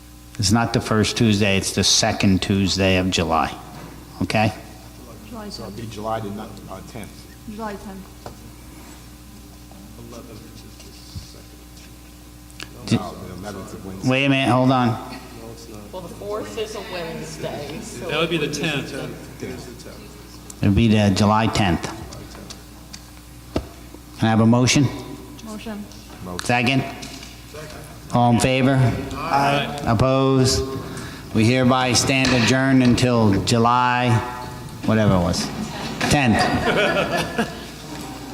It's not the first Tuesday, it's the second Tuesday of July, okay? July So it'll 10th, be July the ni- uh, 10th. July 10th. Ju- No, the 11th of Wednesday. Wait a minute, hold on. Well, the fourth is a Wednesday, so That would be the 10th. It'll be the July 10th. Can I have a motion? Motion. Second? All in favor? Aye. Opposed? We hereby stand adjourned until July, whatever it was, 10th.